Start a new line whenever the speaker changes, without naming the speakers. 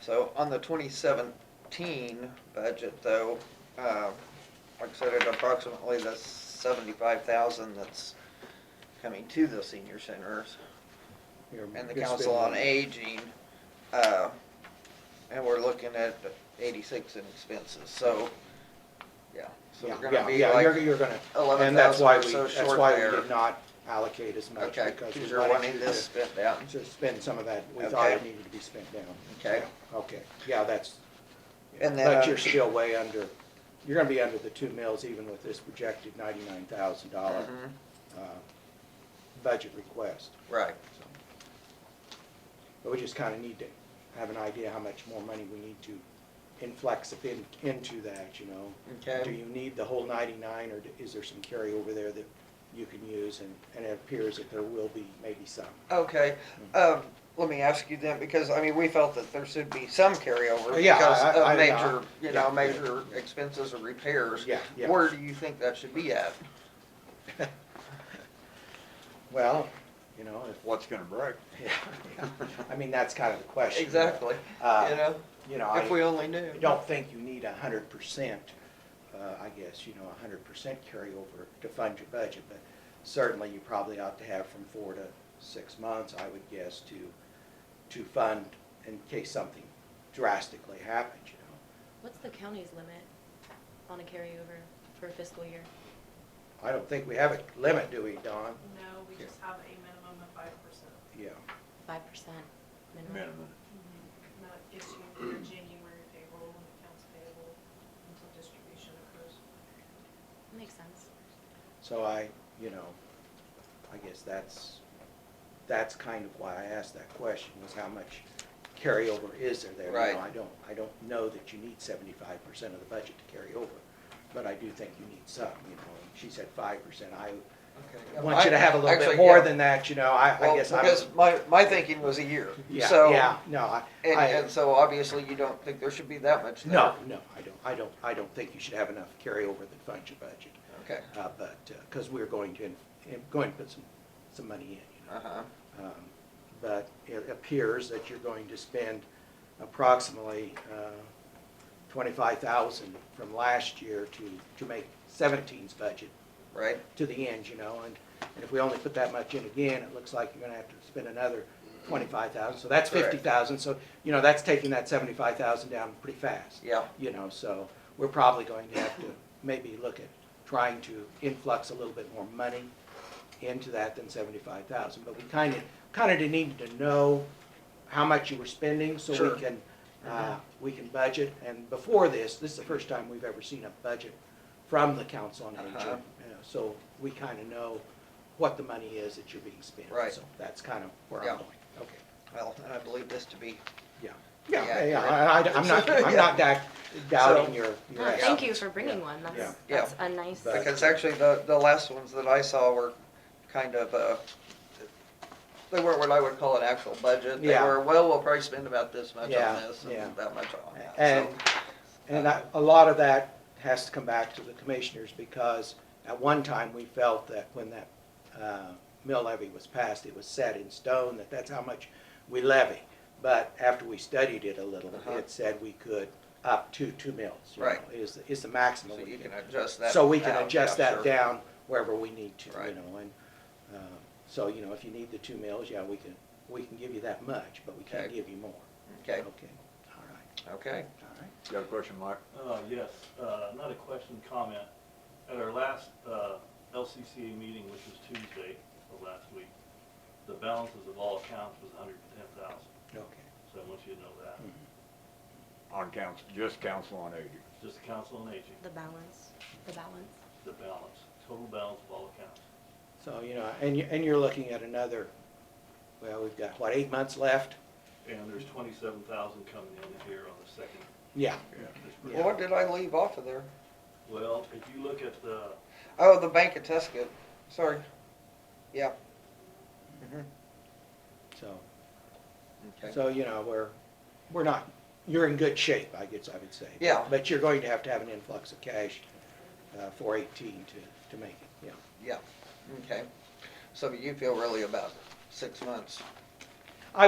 So on the twenty seventeen budget though, uh, like I said, it's approximately the seventy-five thousand that's coming to the senior centers
You're-
and the
you're
council on
spending-
aging. uh, And we're looking at eighty-six in expenses, so, yeah, so
Yeah,
we're
yeah,
gonna be
yeah, you're,
like,
you're gonna, and that's
11,000
why
or
we,
so
that's
short
why
there.
we did not allocate as much
okay,
because
because
we
you're
wanted
wanting
you
this
to,
spent down,
to spend some of that. We thought it
Okay.
needed to be spent down.
okay?
Yeah, Okay, yeah, that's,
And then,
but
uh,
you're still way under, you're gonna be under the two mills even with this projected ninety-nine thousand dollar,
Mhm,
uh, budget request.
Right,
So, But we just kind of need to have an idea how much more money we need to inflex up in- into that, you know? Do
okay,
you need the whole ninety-nine, or is there some carryover there that you can use? And, and it appears that there will be maybe some.
okay. Um, Let me ask you then, because, I mean, we felt that there should be some carryover
Oh, yeah,
because
I- I- I-
of major, you
yeah,
know,
yeah.
major expenses or repairs.
Yeah, yeah.
Where do you think that should be at?
Well, you know, if-
What's gonna break?
yeah, I mean, that's kind of the question.
Exactly,
Uh,
you know,
You know,
if we
I
only knew.
don't think you need a hundred percent, uh, I guess, you know, a hundred percent carryover to fund your budget, but certainly you probably ought to have from four to six months, I would guess, to, to fund in case something drastically happens, you know?
What's the county's limit on a carryover for a fiscal year?
I don't think we have a limit, do we, Don?
No, we just have a minimum of five percent.
Yeah.
Five percent minimum?
Minimum.
That gets you your January payroll and accounts payable until distribution occurs.
Makes sense.
So I, you know, I guess that's, that's kind of why I asked that question, was how much carryover is there there? You know,
Right.
I don't, I don't know that you need seventy-five percent of the budget to carry over, but I do think you need some, you know. She said five percent, I
Okay.
want you to have a little
Actually,
bit more
yeah.
than that, you know, I, I
Well,
guess I'm.
because my, my thinking was a year,
Yeah,
so.
yeah, no, I.
And,
I-
and so obviously you don't think there should be that much there?
No, no, I don't, I don't, I don't think you should have enough carryover that funds your budget.
Okay,
Uh, but, because we're going to, in- in- going to put some, some money in, you know.
uh-huh,
Um, But it appears that you're going to spend approximately uh, twenty-five thousand from last year to, to make seventeen's budget
right,
to the end, you know. And, and if we only put that much in again, it looks like you're gonna have to spend another twenty-five thousand. So that's
Correct.
fifty thousand, so, you know, that's taking that seventy-five thousand down pretty fast
yeah,
you know, so we're probably going to have to maybe look at trying to influx a little bit more money into that than seventy-five thousand, but we kind of, kind of needed to know how much you were spending, so
Sure. Mm-hmm.
we can, uh, we can budget, and before this, this is the first time we've ever seen a budget from the council on aging,
Uh-huh.
you know, so we kind of know what the money is that you're being spent.
Right.
So that's kind of where I'm
Yeah.
going, okay.
well, and I believe this to be,
Yeah,
Yeah,
yeah, yeah, I,
accurate.
I- I'm not, I'm not doubting- doubting your, your
No, thank you
assumptions.
for bringing one.
Yeah.
That's,
Yeah.
that's a nice.
But-
because actually the, the last ones that I saw were kind of, uh, they weren't what I would call an actual budget, they
Yeah.
were, well, we'll probably spend about this much on
Yeah,
this
yeah.
and that much on that,
And,
so, uh,
and I- a lot of that has to come back to the commissioners, because at one time, we felt that when that, uh, mill levy was passed, it was set in stone, that that's how much we levy. But after we studied it a little,
Uh-huh.
it said we could up to two mills, you know,
Right.
is, is the maximum
so
we
you
can
can adjust that.
So we can
down,
adjust
yeah,
that
sure.
down wherever we need to, you
Right.
know, and, uh, so, you know, if you need the two mills, yeah, we can, we can give you that much, but we can't
Okay.
give you more.
Okay,
Okay, all right,
okay,
all right.
You got a question, Mike?
Uh, yes, uh, not a question, comment. At our last, uh, LCCA meeting, which was Tuesday of last week, the balances of all accounts was hundred and ten thousand,
Okay.
so I want you to know that.
Mm-hmm. Hmm.
On council, just council on aging.
Just the council on aging,
The balance, the balance.
the balance, total balance of all accounts.
So, you know, and you, and you're looking at another, well, we've got, what, eight months left?
And there's twenty-seven thousand coming in here on the second.
Yeah,
this-
well, what did I leave off of there?
Well, if you look at the,
Oh, the Bank of Tuscan, sorry, yeah. Mhm.
so,
Mm-hmm. Okay.
Mm-hmm. so, you know, we're, we're not, you're in good shape, I guess I would say.
Yeah.
But you're going to have to have an influx of cash, uh, for eighteen to, to make it, yeah.
Yeah, okay. So you feel really about six months